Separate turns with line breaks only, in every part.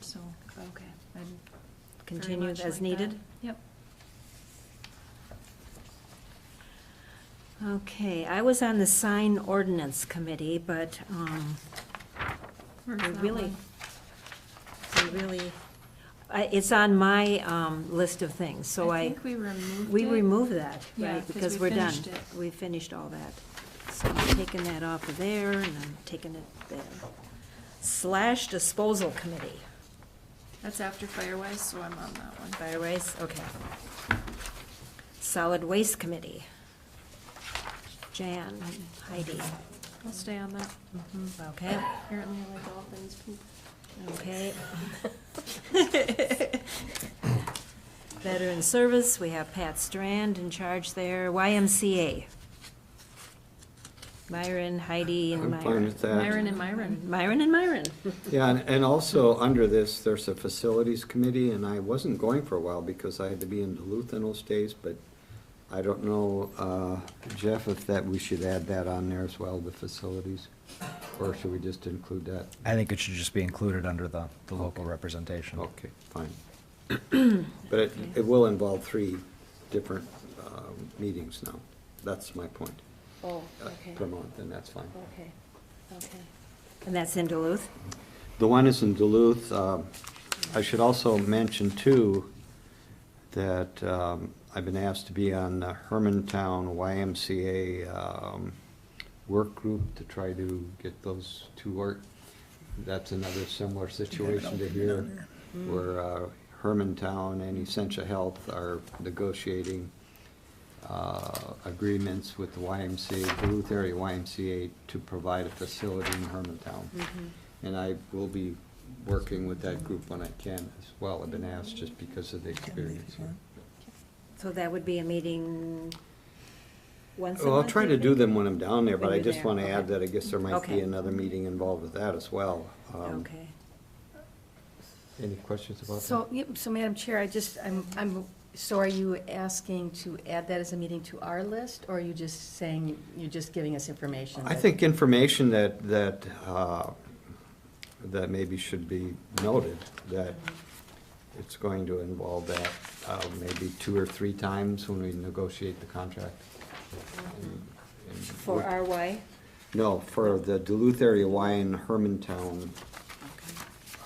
so
Okay.
I'd very
Continue
much
as
like that.
needed?
Yep.
Okay, I was on the sign ordinance committee, but, um,
Where's
we
that
Oh, really,
one?
we really, I- it's on my, um, list of things, so I,
think we removed
we
it.
removed that,
Yeah,
right,
'cause
because
we
we're done.
finished it.
We finished all that. So I'm taking that off of there, and I'm taking it there. Slash disposal committee.
That's after Firewise, so I'm on that one.
Fire waste, okay. Solid Waste Committee. Jan, Heidi.
I'll stay on that.
Okay,
Apparently I like all things poop.
okay. Veteran Service, we have Pat Strand in charge there. YMCA. Myron, Heidi, and
I'm
Myron.
fine with that.
Myron and Myron.
Myron and Myron.
Yeah, and- and also, under this, there's a facilities committee, and I wasn't going for a while because I had to be in Duluth in those days, but I don't know, uh, Jeff, if that, we should add that on there as well, the facilities? Or should we just include that?
I think it should just be included under the, the local representation.
Okay, fine. But it, it will involve three different um, meetings now. That's my point.
Oh,
uh,
okay,
Per month, and that's fine.
okay, okay.
And that's in Duluth.
The one is in Duluth. Um, I should also mention too, that um, I've been asked to be on the Hermantown YMCA um, work group to try to get those to work. That's another similar situation to here, where uh, Hermantown and Essentia Health are negotiating uh, agreements with the YMCA, Duluth area YMCA, to provide a facility in Hermantown.
Mm-hmm.
Mm-hmm.
And I will be working with that group when I can as well. I've been asked just because of the experience. here.
So that would be a meeting once a month?
Well, I'll try
you
to do
think?
them when I'm down there, but
When
I
you're
just
there,
want to
okay.
add that I guess there might
Okay.
be another meeting involved with that as well. Um,
Okay.
Any questions about that?
So, yep, so Madam Chair, I just, I'm, I'm, so are you asking to add that as a meeting to our list? Or are you just saying, you're just giving us information?
I
that-
think information that, that, uh, that maybe should be noted, that it's going to involve that uh, maybe two or three times when we negotiate the contract. And- and
For
we-
RY?
No, for the Duluth area Y and Hermantown.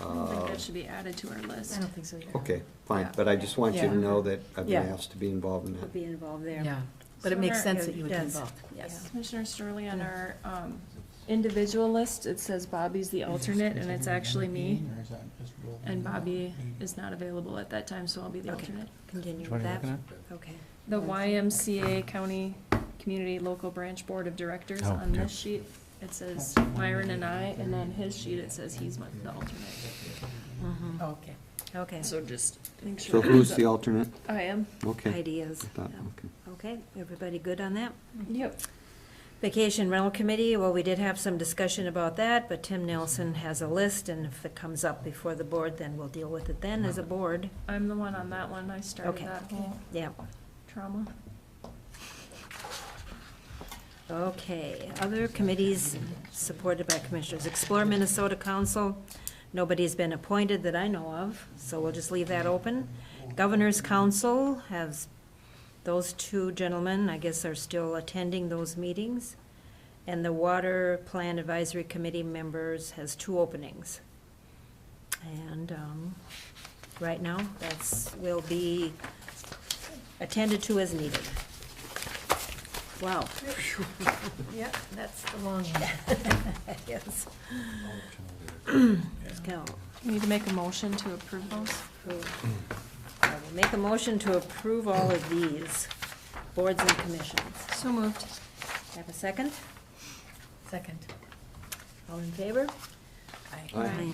uh,
I don't think that should be added to our list.
I don't think so either.
Okay, fine, but I just want you to
Yeah.
know that I've been
Yeah.
asked to be involved in
Would
that.
be involved there.
Yeah, but it makes sense that you would be
Yes.
involved, yes.
Commissioner Sterling, on
Yeah.
our um, individual list, it says Bobby's the alternate, and it's actually me. And Bobby is not available at that time, so I'll be the
Okay.
alternate.
Continue
one
with
are you
that. Okay.
looking
The YMCA County Community Local Branch Board of Directors,
Oh,
on
yeah.
this sheet, it says Myron and I, and on his sheet, it says he's my- the alternate.
Mhm.
Mm-hmm. Oh, Okay.
Okay.
So just make sure.
So who's the alternate?
I am.
Okay.
Ideas.
I thought,
Yeah.
okay.
Okay, everybody good on that?
Yep.
Vacation rental committee, well, we did have some discussion about that, but Tim Nelson has a list, and if it comes up before the board, then we'll deal with it then as a board.
I'm the one on that one. I started
Okay.
that whole
Yeah,
trauma.
okay. Other committees supported by commissioners. Explore Minnesota Council, nobody's been appointed that I know of, so we'll just leave that open. Governor's Council has, those two gentlemen, I guess, are still attending those meetings. And the Water Plan Advisory Committee members has two openings. And, um, right now, that's, will be attended to as needed. Wow.
Yep, that's the long one.
Yes. Let's go.
We Need to make a motion to approve those?
I will Make a motion to approve all of these boards and commissions.
So moved.
Have a second?
Second.
All in favor?
Aye.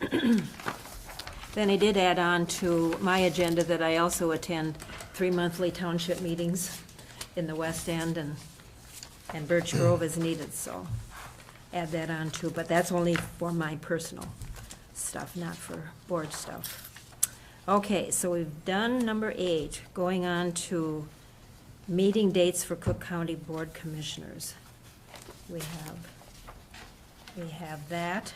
Aye.
Then I did add on to my agenda that I also attend three monthly township meetings in the West End and, and Birch Grove is needed, so add that on too, but that's only for my personal stuff, not for board stuff. Okay, so we've done number eight, going on to meeting dates for Cook County Board Commissioners. We have, we have that.